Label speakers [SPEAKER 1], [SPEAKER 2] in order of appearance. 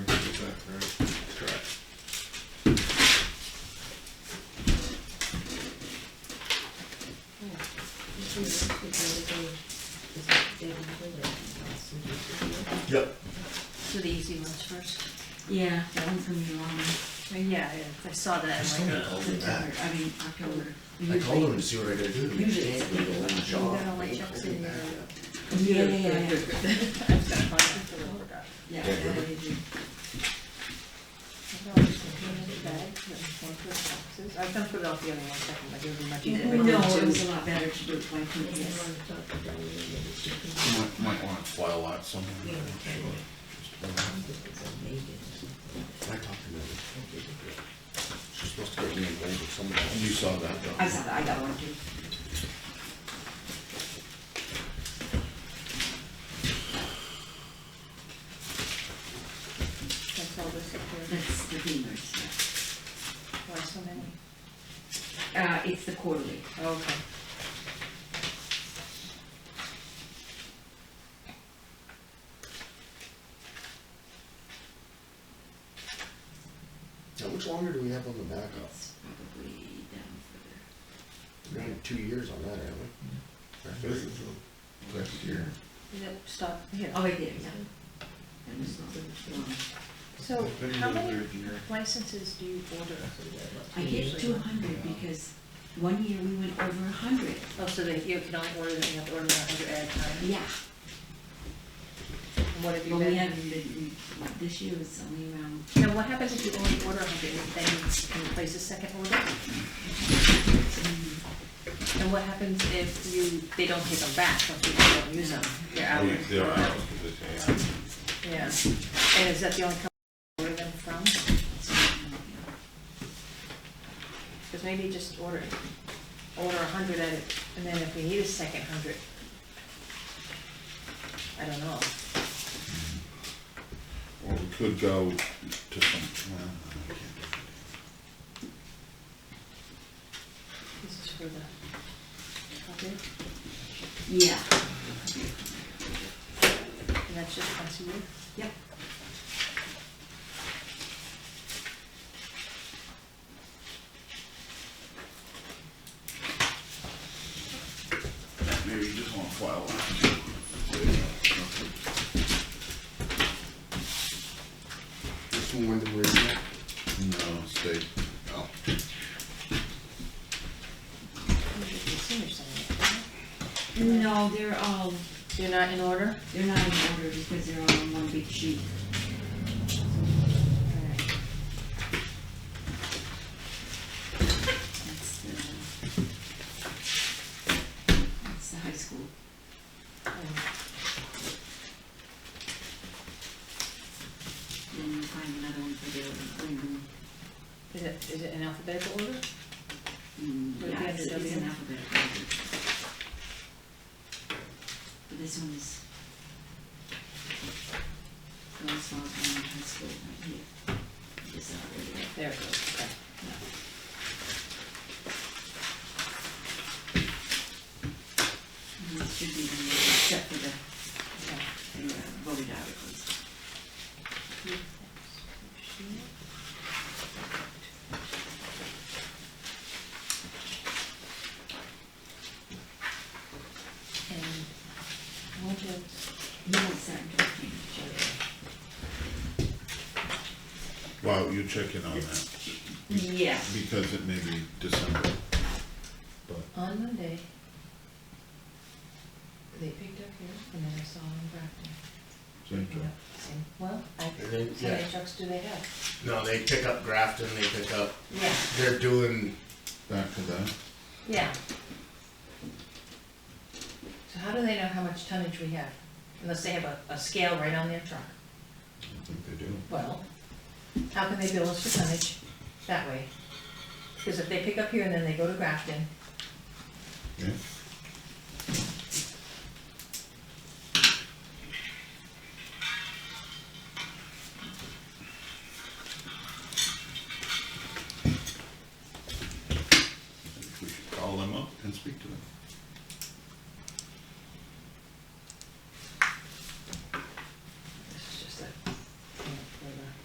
[SPEAKER 1] Yep.
[SPEAKER 2] Do the easy ones first.
[SPEAKER 3] Yeah, that one's gonna be long.
[SPEAKER 2] Uh, Yeah, I- I saw that,
[SPEAKER 1] Just
[SPEAKER 2] I'm
[SPEAKER 1] don't
[SPEAKER 2] like,
[SPEAKER 1] call me
[SPEAKER 3] September,
[SPEAKER 1] back.
[SPEAKER 3] I mean, October.
[SPEAKER 1] I told him to see what I gotta do to make
[SPEAKER 3] Usually-
[SPEAKER 1] Jake do the whole job.
[SPEAKER 2] got all my
[SPEAKER 1] They
[SPEAKER 2] checks
[SPEAKER 1] called me
[SPEAKER 2] in
[SPEAKER 1] back
[SPEAKER 2] there.
[SPEAKER 1] up.
[SPEAKER 3] Yeah, yeah, yeah, yeah.
[SPEAKER 2] I've got five people that forgot.
[SPEAKER 3] Yeah,
[SPEAKER 1] Yeah,
[SPEAKER 3] yeah,
[SPEAKER 1] really.
[SPEAKER 3] they do.
[SPEAKER 2] I've got just a few minute bags and one for boxes. I can put it all together in one second, like it'll be much easier.
[SPEAKER 3] No, it was a lot better to do it by two, yes.
[SPEAKER 4] You Might, might wanna file that somewhere.
[SPEAKER 1] I talked to him. She's supposed to get me involved with somebody else.
[SPEAKER 4] You saw that,
[SPEAKER 3] I
[SPEAKER 4] though.
[SPEAKER 3] saw that, I got one too.
[SPEAKER 2] That's all this up here.
[SPEAKER 3] That's the Beamer's,
[SPEAKER 2] Why so many?
[SPEAKER 3] yeah. Uh, it's the quarterly.
[SPEAKER 2] Okay.
[SPEAKER 1] How much longer do we have on the backup?
[SPEAKER 3] It's probably down further.
[SPEAKER 1] We're gonna have two years on that, aren't we?
[SPEAKER 4] This is a- Next year.
[SPEAKER 2] Yep, stop here.
[SPEAKER 3] Oh, right there, yeah. That was not long.
[SPEAKER 2] So
[SPEAKER 4] It's been
[SPEAKER 2] how
[SPEAKER 4] another
[SPEAKER 2] many
[SPEAKER 4] year.
[SPEAKER 2] licenses do you order?
[SPEAKER 3] I get
[SPEAKER 2] Usually
[SPEAKER 3] two
[SPEAKER 2] one.
[SPEAKER 3] hundred because one year we went over a hundred.
[SPEAKER 2] Oh, so they, you can only order them, you have to order them under ad time.
[SPEAKER 3] Yeah,
[SPEAKER 2] And what have you
[SPEAKER 3] but we
[SPEAKER 2] been?
[SPEAKER 3] haven't been, we- this year was only around,
[SPEAKER 2] Now, what happens if you only order a hundred, then you can place a second order? And what happens if you, they don't take them back, once you don't use them, they're out?
[SPEAKER 4] Yeah, they're out, 'cause it's AI.
[SPEAKER 2] Yeah, and is that the only company you order them from? Because maybe just order, order a hundred at it, and then if we need a second hundred, I don't know.
[SPEAKER 4] Or we could go to some, uh, well, I can't do it.
[SPEAKER 2] This is for the, okay,
[SPEAKER 3] yeah,
[SPEAKER 2] and that's just once a year?
[SPEAKER 3] yeah.
[SPEAKER 4] Maybe you just wanna file that.
[SPEAKER 1] This one, when did we do that?
[SPEAKER 4] No, state. Oh.
[SPEAKER 2] Usually senior center, right?
[SPEAKER 3] No, they're all,
[SPEAKER 2] You're not in order?
[SPEAKER 3] they're not in order because they're all on one big sheet.
[SPEAKER 2] Alright.
[SPEAKER 3] That's the, that's the high school.
[SPEAKER 2] Um,
[SPEAKER 3] Then you find another one for the, um,
[SPEAKER 2] Is it, is it in alphabetical order?
[SPEAKER 3] mm,
[SPEAKER 2] Would it be
[SPEAKER 3] yeah, it's,
[SPEAKER 2] under
[SPEAKER 3] it's
[SPEAKER 2] W?
[SPEAKER 3] an alphabetical. order. But this one is. Those falls in high school right here. This already.
[SPEAKER 2] There it goes, okay.
[SPEAKER 3] And this should be the, except for the,
[SPEAKER 2] okay.
[SPEAKER 3] the uh, voted articles.
[SPEAKER 2] And what did,
[SPEAKER 3] You won't start talking to each other.
[SPEAKER 4] Wow, you check in on that,
[SPEAKER 3] Yeah.
[SPEAKER 4] because it may be December.
[SPEAKER 2] on Monday, they picked up here and then I saw them in
[SPEAKER 4] Same
[SPEAKER 2] Brockton. Yeah,
[SPEAKER 4] time.
[SPEAKER 2] same- Well, I,
[SPEAKER 1] And then,
[SPEAKER 2] how
[SPEAKER 1] yeah,
[SPEAKER 2] many trucks do they have?
[SPEAKER 1] no, they pick up Grafton, they pick up,
[SPEAKER 2] Yeah.
[SPEAKER 1] they're doing,
[SPEAKER 4] Back to that.
[SPEAKER 2] Yeah. So how do they know how much tonnage we have? Unless they have a, a scale right on their truck.
[SPEAKER 4] I think they do.
[SPEAKER 2] Well, how can they bill us for tonnage that way? Because if they pick up here and then they go to Grafton,
[SPEAKER 4] Yeah.